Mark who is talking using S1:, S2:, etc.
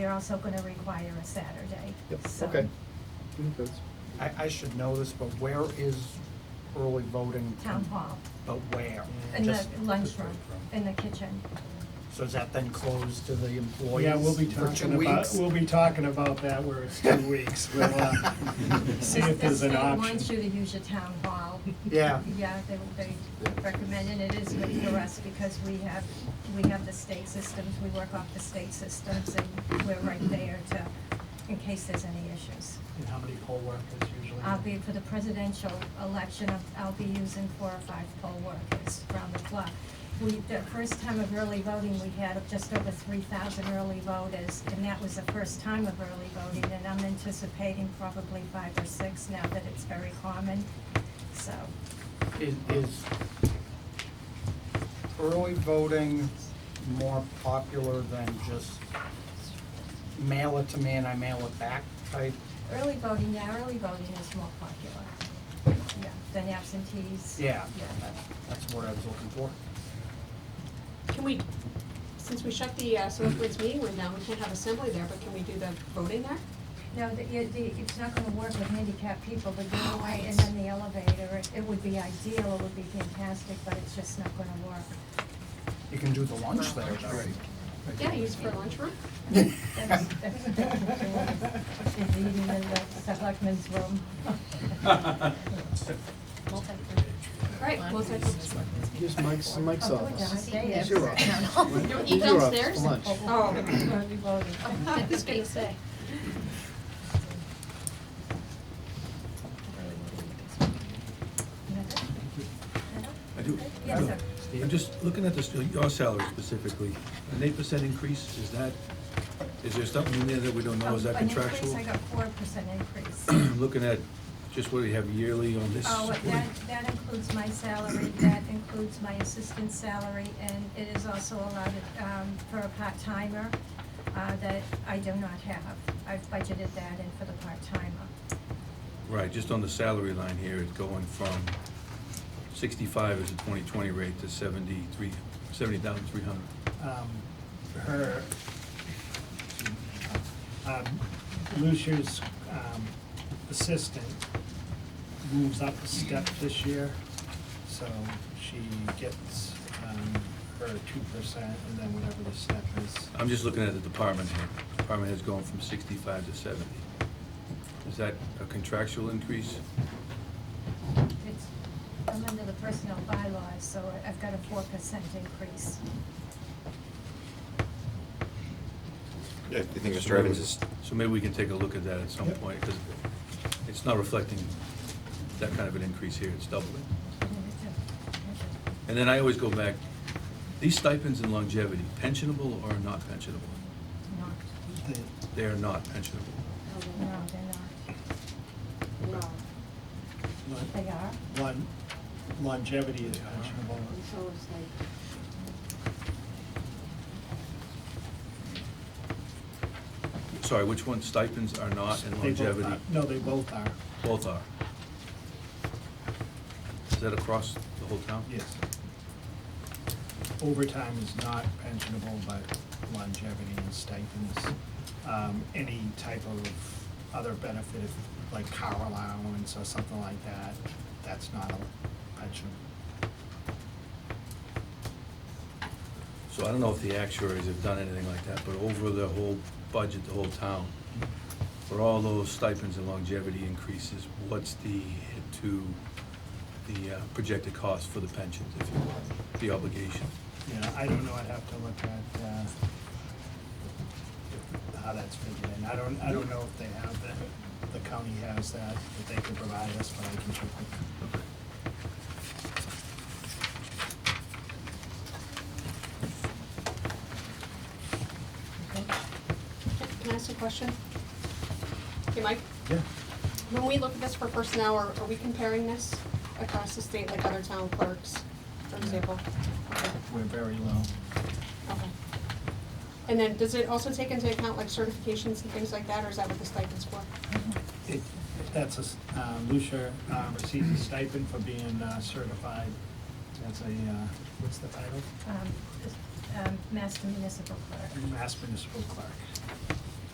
S1: they're also gonna require a Saturday.
S2: Yep,
S1: so-
S2: okay.
S3: I, I should know this, but where is early voting?
S1: Town hall,
S4: Uh,
S3: But where?
S1: in the
S3: Just-
S1: lunchroom, in the kitchen.
S3: So is that then closed to the employees?
S4: Yeah, we'll be
S3: for two
S4: talking about,
S3: weeks?
S4: we'll be talking about that where it's two weeks. We'll, uh, see
S1: The-
S4: if there's an
S1: The state wants you
S4: option.
S1: to use your town hall.
S3: Yeah.
S1: Yeah, they, they recommend, and it is good for us because we have, we have the state systems, we work off the state systems, and we're right there to, in case there's any issues.
S4: And how many poll workers usually?
S1: I'll be, for the presidential election, I'll be using four or five poll workers around the clock. We, the first time of early voting, we had just over three thousand early voters, and that was the first time of early voting, and I'm anticipating probably five or six now that it's very common, so.
S3: Is, is early voting more popular than just mail it to me and I mail it back type?
S1: Early voting, yeah, early voting is more popular, yeah, than absentees.
S3: Yeah,
S1: Yeah.
S3: that- that's what I was looking for.
S5: Can we, since we shut the uh, select board's meeting room down, we can't have assembly there, but can we do the voting there?
S1: No, the, you- the, it's not gonna work with handicapped people,
S5: Oh,
S1: the doorway and then the elevator, it, it would be ideal, it would be fantastic, but it's just not gonna work.
S3: You can do the lunch there, though.
S5: Yeah, use for lunchroom?
S1: That's, that's what they're doing, is eating in the selectmen's room.
S5: Right, multi-purpose.
S2: Here's Mike's, Mike's
S1: Oh, God,
S2: office.
S1: I hate it.
S2: Your office.
S5: Don't eat
S2: Here's your office
S5: downstairs?
S2: for Lunch.
S5: Oh.
S1: Early voting.
S5: I was gonna say.
S6: I do.
S1: Yes, sir.
S6: I'm just looking at this, your salary specifically, an eight percent increase, is that, is there something in there that we don't know, is that contractual?
S1: Um, An increase, Oh, I got four percent increase.
S6: Looking at just what we have yearly on this.
S1: Oh, that, that includes my salary, that includes my assistant salary, and it is also allowed, um, for a part-timer, uh, that I do not have. I've budgeted that in for the part-timer.
S6: Right, just on the salary line here, it's going from sixty-five as a twenty twenty rate to seventy-three, seventy thousand three hundred.
S4: um, her, um, Lucia's, um, assistant moves up a step this year, so she gets, um, her two percent and then whatever the step is.
S6: I'm just looking at the department here, department has gone from sixty-five to seventy. Is that a contractual increase?
S1: It's, I'm under the personnel bylaws, so I've got a four percent increase.
S7: I I think Mr. Evans is,
S6: So maybe we can take a look at that at some point, because it's not reflecting that kind of an increase here, it's doubling. And then I always go back, these stipends and longevity, pensionable or not pensionable?
S1: Not,
S4: The-
S6: They are not pensionable.
S1: no, they're not.
S5: No.
S1: They are?
S4: Lon- Longevity is questionable.
S5: So it's like.
S6: Sorry, which one, stipends are not Uh, and
S4: They both are-
S6: longevity,
S4: No, they both are,
S6: both are? Is that across the whole town?
S4: yes. Overtime is not pensionable, but longevity and stipends, um, any type of other benefit, if- like car allowance or something like that, that's not a pension.
S6: So I don't know if the actuaries have done anything like that, but over the whole budget, the whole town, for all those stipends and longevity increases, what's the hit to the uh, projected cost for the pensions, if you will, the obligation?
S4: Yeah, I don't know, I'd have to look at, uh, how that's figured in. I don't, I don't know if they have that, the county has that, that they can provide us, but I can check with them.
S5: Can I ask a question? Hey, Mike,
S4: Yeah.
S5: when we look at this for personnel, are, are we comparing this across the state like other town clerks, for example? Okay.
S4: We're very low.
S5: Okay. And then, does it also take into account like certifications and things like that, or is that what the stipend's for?
S4: It, that's a, s- uh, Lucia uh, receives a stipend for being uh, certified as a, uh, what's the title?
S1: Um, um, Master Municipal Clerk.
S4: Mass Municipal Clerk.